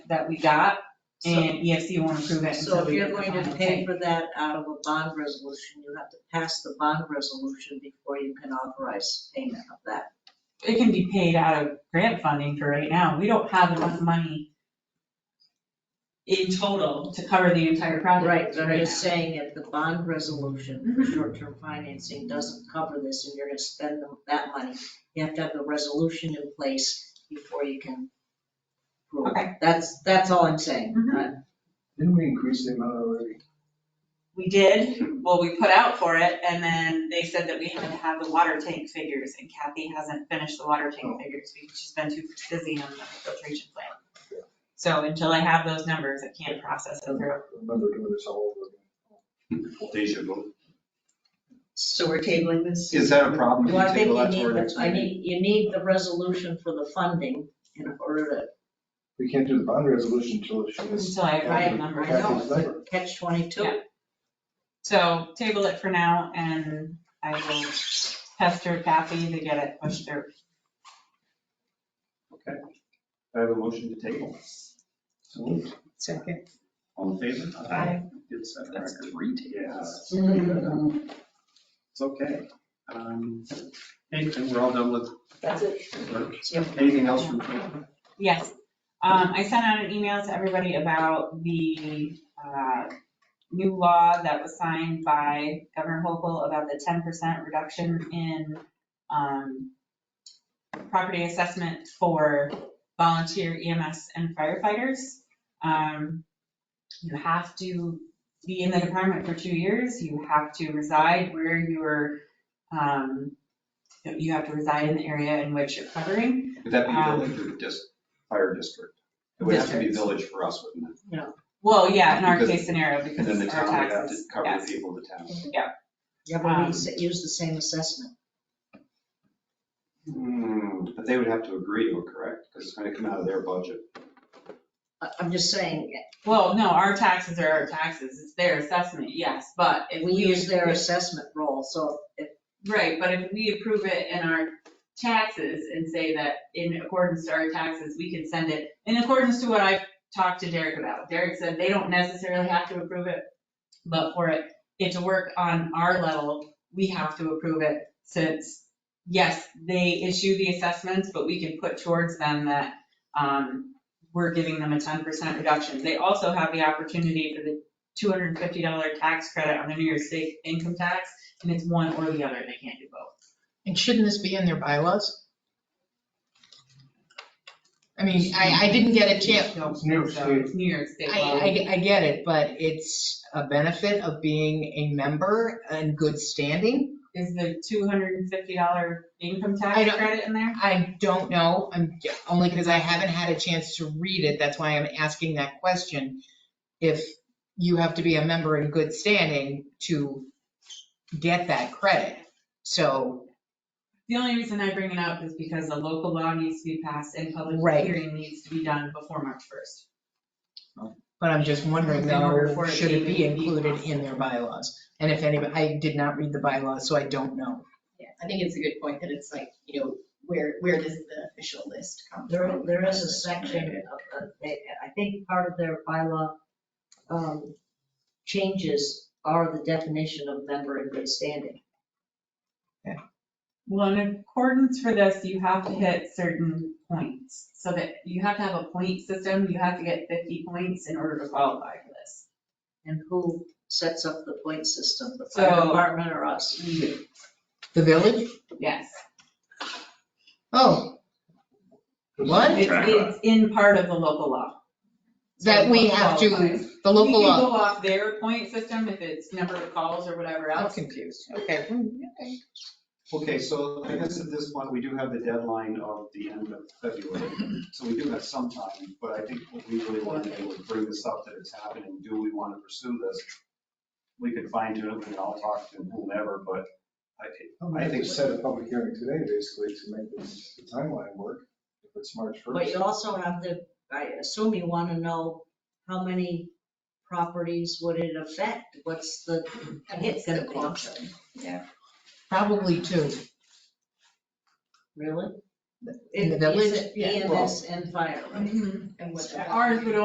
that we got, So- and EFC won't approve it So until if we you're get the going to final pay pay. for that out of a bond resolution, you have to pass the bond resolution before you can authorize payment of that. It can be paid out of grant funding for right now. We don't have enough money in total. to cover the entire project. Right, but I'm now. just saying if the bond resolution for short-term financing doesn't cover this and you're gonna spend the- that money, you have to have the resolution in place before you can. approve. Okay. That's, that's all I'm saying. Mhm. Didn't we increase the amount already? We did, well, we put out for it, and then they said that we had to have the water tank figures, and Kathy hasn't finished the water tank figures because she's been too busy on the filtration plant. So until I have those numbers, I can't process it through. Remember doing this all over Deja vu. So we're tabling this? Is that a problem? if Well, I you think table you that to our need, next the- I meeting? need, you need the resolution for the funding in order We can't do the bond resolution until it's. Until I write a number, I know. Kathy's number. to catch 22. Yeah. So table it for now, and I will pester Kathy to get it pushed through. I have a motion to table. So moved. Second. All in favor? Aye. Good set of record. Yeah, Mm-hmm. it's okay. Um, Hey, and we're all done with That's it. work. Anything else from? Yes, um, I sent out an email to everybody about the, uh, new law that was signed by Governor Hochul about the ten percent reduction in, um, property assessment for volunteer EMS and firefighters. Um, you have to be in the department for two years, you have to reside where you're, um, you have to reside in the area in which you're covering. Would that be Um, village or dis, fire district? It would have to be village for us, wouldn't it? Well, yeah, in our Because- case scenario, And because then the our town would have to taxes, cover the yes. people of the town. Yeah, but Um, we s- use the same assessment. Hmm, But they would have to agree to it, correct? Because it's going to come out of their budget. I- I'm just saying, Well, no, our taxes are our taxes, it's their assessment, yes, but if we we. use their assessment roll, so if Right, but if we approve it in our taxes and say that in accordance to our taxes, we can send it, in accordance to what I talked to Derek about. Derek said they don't necessarily have to approve it, but for it, it to work on our level, we have to approve it since, yes, they issue the assessments, but we can put towards them that, um, we're giving them a ten percent reduction. They also have the opportunity for the two hundred and fifty dollar tax credit on the New York State income tax and it's one or the other, they can't do both. And shouldn't this be in their bylaws? I mean, I, I didn't get a chance, It's New York So State. It's New York State I, law. I, I get it, but it's a benefit of being a member and good standing. Is the two hundred and fifty dollar income I tax don't- credit in there? I don't know, I'm, j- only because I haven't had a chance to read it, that's why I'm asking that question. If you have to be a member in good standing to get that credit, so, The only reason I bring it up is because the local law needs to be passed and public Right. hearing needs to be done before March first. but I'm just wondering In order though, for it to should it be even be included possible. in their bylaws? And if anybody, I did not read the bylaws, so I don't know. Yeah, I think it's a good point that it's like, you know, where, where does the official list come there, from? there is a section of, of- I think part of their bylaw um, changes are the definition of member in good standing. Well, in accordance for this, you have to hit certain points, so that you have to have a point system, you have to get fifty points in order to qualify for this. And who sets up the point system, the So- fire department or us? Mm-hmm. The village? Yes. Oh, what? It's, it's in part of the local law. That we have to, the We local can law. go off their point system if it's number of calls or whatever I'm else. confused. Okay. Okay, so I guess at this point, we do have the deadline of the end of February, so we do have some time, but I think what we really want to do is bring this up that it's happening, do we want to pursue this? We could fine tune it, we can all talk to whomever, but I, I think set a public hearing today, basically, to make this the timeline work, if it's March But first. you also have to, I assume you want to know how many properties would it affect? What's the And hit what's the going to be? quantum? Probably two. Really? In the It- village? it's Yeah. E EMS and fire, right? Mhm. And what. Ours would